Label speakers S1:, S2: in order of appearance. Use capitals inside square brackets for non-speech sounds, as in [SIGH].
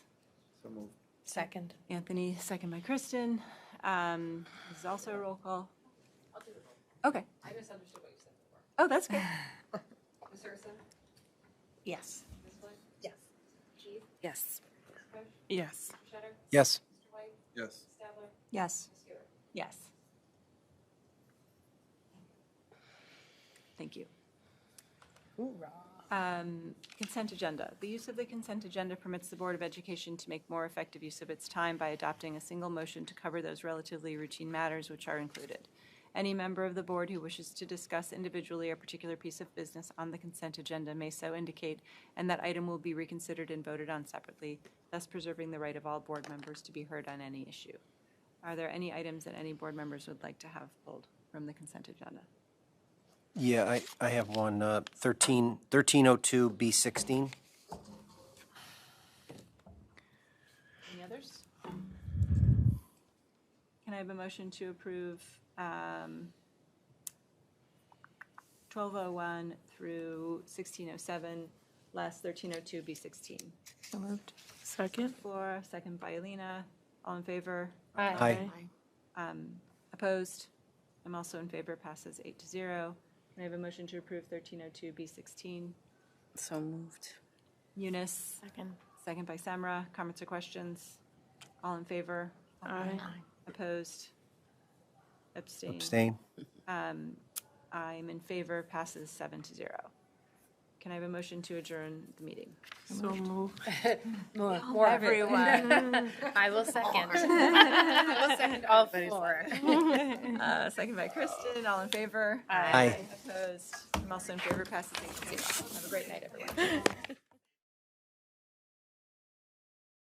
S1: So moved.
S2: Second.
S3: Anthony, second by Kristen. Um, This is also a roll call. I'll do the roll. Okay.
S4: I misunderstood what you said before.
S3: Oh, that's good.
S4: [LAUGHS] Ms. Harrison?
S2: Yes.
S4: Ms. Flynn?
S2: Yes.
S4: Keith?
S2: Yes.
S4: Ms. Bush?
S2: Yes.
S4: Ms. Shutter?
S5: Yes.
S4: Mr. White?
S1: Yes.
S4: Ms. Stadler?
S3: Yes.
S4: Ms. Huber?
S3: Yes. Thank you. Um, Consent agenda. The use of the consent agenda permits the Board of Education to make more effective use of its time by adopting a single motion to cover those relatively routine matters which are included. Any member of the board who wishes to discuss individually a particular piece of business on the consent agenda may so indicate, and that item will be reconsidered and voted on separately, thus preserving the right of all board members to be heard on any issue. Are there any items that any board members would like to have pulled from the consent agenda?
S5: Yeah, I, I have one, uh, oh 13, 1302B16.
S3: Any others? Can I have a motion to approve um, 1201 through 1607, last 1302B16?
S2: So moved. Second.
S3: Flora, second by Alina. All in favor?
S5: Aye.
S3: Opposed? I'm also in favor, passes eight to zero. Can I have a motion to approve 1302B16?
S2: So moved.
S3: Eunice,
S2: Second.
S3: second by Samra. Comments or questions? All in favor?
S2: Aye.
S3: Opposed? Abstain.
S5: Abstain.
S3: I'm in favor, passes seven to zero. Can I have a motion to adjourn the meeting?
S2: So moved.
S4: More
S6: I will second. I will second all four.
S3: Uh, Second by Kristen, all in favor?
S5: Aye.
S3: Opposed? I'm also in favor, passes eight to zero. Have a great night, everyone.